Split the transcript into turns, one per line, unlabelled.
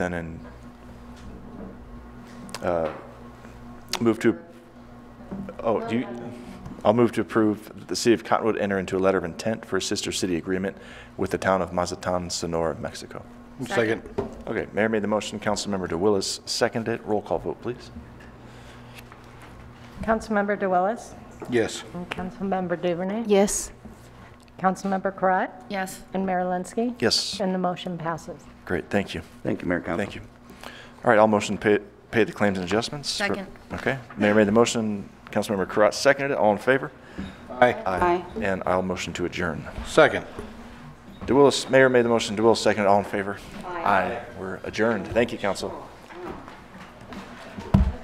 then and uh, move to, oh, do you, I'll move to approve the City of Cottonwood enter into a letter of intent for a sister city agreement with the town of Mazatán, Sonora, Mexico.
Second.
Okay, Mayor made the motion, Councilmember DeWillis seconded it. Roll call vote, please.
Councilmember DeWillis.
Yes.
And Councilmember Duvernay.
Yes.
Councilmember Karat.
Yes.
And Mayor Linsky.
Yes,
And the motion passes.
great, thank you.
Thank you, Mayor and Council.
Thank you. All right, I'll motion pay, pay the claims and adjustments.
Second.
Okay, Mayor made the motion, Councilmember Karat seconded it. All in favor?
Aye.
Aye.
And I'll motion to adjourn.
Second.
DeWillis, Mayor made the motion, DeWillis seconded, all in favor? Aye. We're adjourned. Thank you, council.